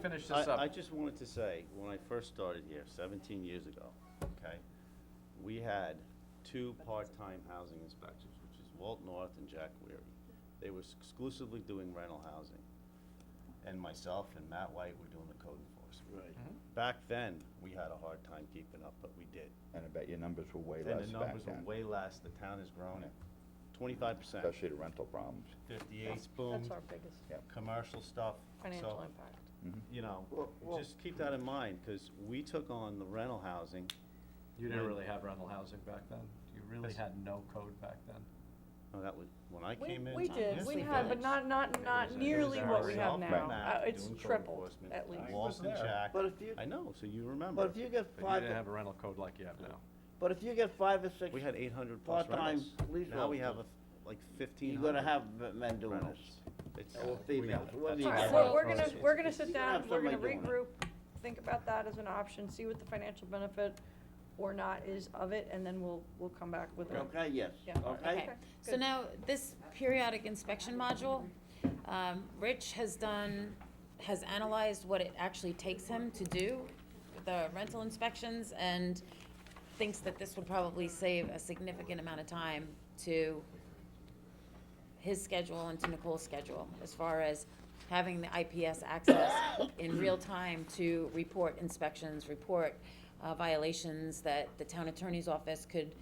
finish this I, I up. just wanted to say, when I first started here, seventeen years ago, okay, we had two part-time housing inspectors, which is Walt North and Jack Weary. They were exclusively doing rental housing. And myself and Matt White were doing the code enforcement. Right. Mm-hmm. Back then, we had a hard time keeping up, but we did. And I bet your numbers were way And less the back numbers then. were way less, the town has grown twenty-five percent, Especially the rental problems. fifty-eight boom, That's our biggest commercial stuff, financial so, impact. Mm-hmm. you know, Well- well- just keep that in mind, because we took on the rental housing You didn't really have rental housing back then. You really Yes. had no code back then. No, oh, that was, when I We- came in. We did, Yes, we had, but did. not, not, was not a- nearly it was what we our Myself, have now. Matt, Uh, It's doing code tripled, enforcement, at least. was Walt and there. Jack. But if you- I know, so you remember. But if you get But you five, didn't have a rental code like you have now. but if you get five or six, We had eight hundred plus Part-time rentals. police Now we have officers. a f- like fifteen you're hundred. gonna have men doing rentals. this. It's- Or we got females, it. whether you All got right, it. well, we're Well, gonna, it's- we're gonna You sit gotta have down, we're gonna somebody doing it. regroup, think about that as an option, see what the financial benefit or not is of it, and then we'll, we'll come back with a Okay, yes, Yeah. okay? Okay, so good. now, this periodic inspection module, um, Rich has done, has analyzed what it actually takes him to do the rental inspections and thinks that this would probably save a significant amount of time to his schedule and to Nicole's schedule, as far as having the IPS access in real time to report inspections, report uh, violations that the town attorney's office could,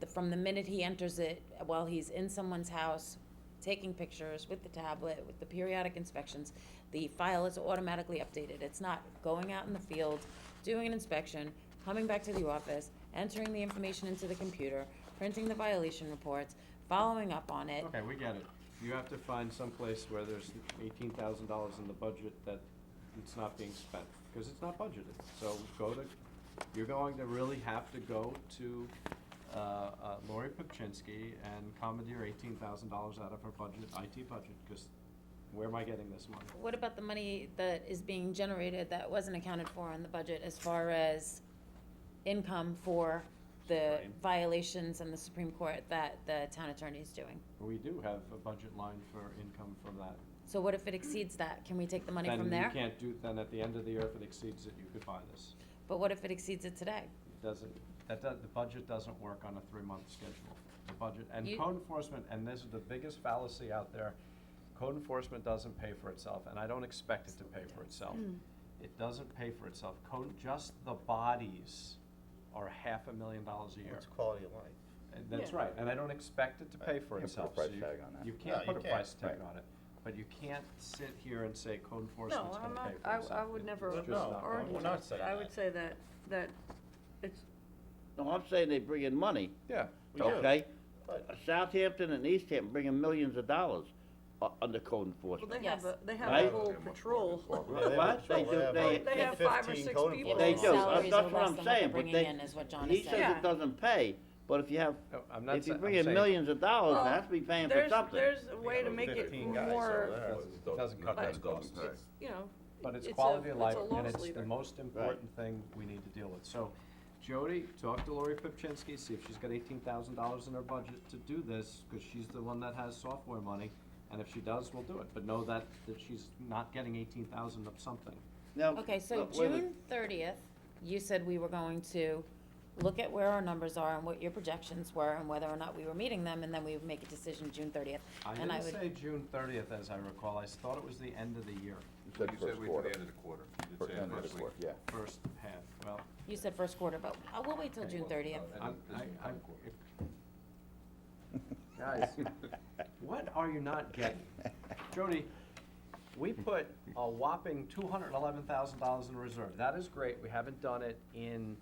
the- from the minute he enters it, while he's in someone's house, taking pictures with the tablet, with the periodic inspections, the file is automatically updated. It's not going out in the field, doing an inspection, coming back to the office, entering the information into the computer, printing the violation reports, following up on it. Okay, we get it. Eh. You have to find someplace where there's eighteen thousand dollars in the budget that it's not being spent, because it's not budgeted. So go to, you're going to really have to go to, uh, uh, Lori Pipchinsky and commandeer eighteen thousand dollars out of her budget, IT budget, because where am I getting this money? What about the money that is being generated that wasn't accounted for in the budget as far as income for the Supreme. violations in the Supreme Court that the town attorney is doing? We do have a budget line for income from that. So what if it exceeds that? Can we take the money from Then you there? can't do, then at the end of the year, if it exceeds it, you could buy this. But what if it exceeds it today? It Doesn't, that, does- the budget doesn't work on a three-month schedule. The budget, and You- code enforcement, and this is the biggest fallacy out there, code enforcement doesn't pay for itself, and I don't expect it to pay for itself. It doesn't pay for itself. Code, just the bodies are half a million dollars a year. It's quality of life. And that's Yeah. right, and I don't expect it to pay for Right. Can't put a itself. price so you- tag on that. You No, can't you put a can't. price tag Right. on it, but you can't sit here and say code No, enforcement's I'm gonna not, pay for I, itself. I would It- never it's just not going argue to. we're not that. saying I that. would say that, that it's, No, I'm saying they bring in money, Yeah. We do. okay? But- Southampton and East Hampton bringing millions of dollars u- Uh, under code well, enforcement. they have Yes. a, they have a Right? whole patrol. Yeah, they What? have control. They do- they- like They have five or 15 six code people. Yeah, enforcement They but do, officers. salaries that's are that's what less than I'm what saying, they're but bringing they, in is what John he is says saying. it doesn't pay, but if you have, No, I'm not if you sa- I'm bring in saying- millions of dollars, Well, they have to be paying for There's, something. there's a way to Those make it 15 guys over more, there. Doesn't cut that Doesn't cost. pay. it's, you know, But it's It's a- quality of it's life, a and loss it's the leader. most important thing we need to deal with. So, Jody, talk to Lori Pipchinsky, see if she's got eighteen thousand dollars in her budget to do this, because she's the one that has software money. And if she does, we'll do it, but know that, that she's not getting eighteen thousand of something. Now, Okay, so look, wait a minute. June thirtieth, you said we were going to look at where our numbers are and what your projections were and whether or not we were meeting them, and then we would make a decision June thirtieth. I And I didn't would, say June thirtieth, as I recall, I thought it was the end of the year, You You said said first wait till quarter. the end of the quarter. You Fir- said end of the first week. quarter, yeah. first half, well, you said first quarter, but uh, we'll wait till June thirtieth. Uh, And I'm, then I, this is I. the quarter. if- Guys, what are you not getting? Jody, we put a whopping two hundred and eleven thousand dollars in reserve. That is great. We haven't done it in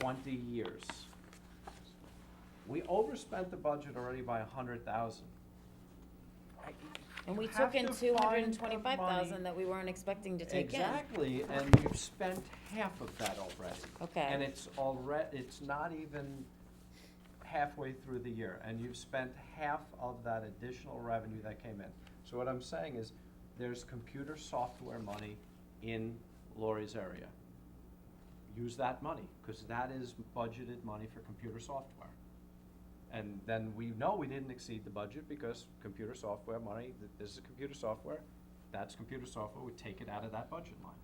twenty years. We overspent the budget already by a hundred thousand. And we You have took in to two hundred find and the twenty-five thousand money. that we weren't expecting to take in. Exactly, and you've spent half of that already. Okay. And it's already, it's not even halfway through the year, and you've spent half of that additional revenue that came in. So what I'm saying is, there's computer software money in Lori's area. Use that money, because that is budgeted money for computer software. And then we know we didn't exceed the budget because computer software money, th- this is computer software, that's computer software, we take it out of that budget line.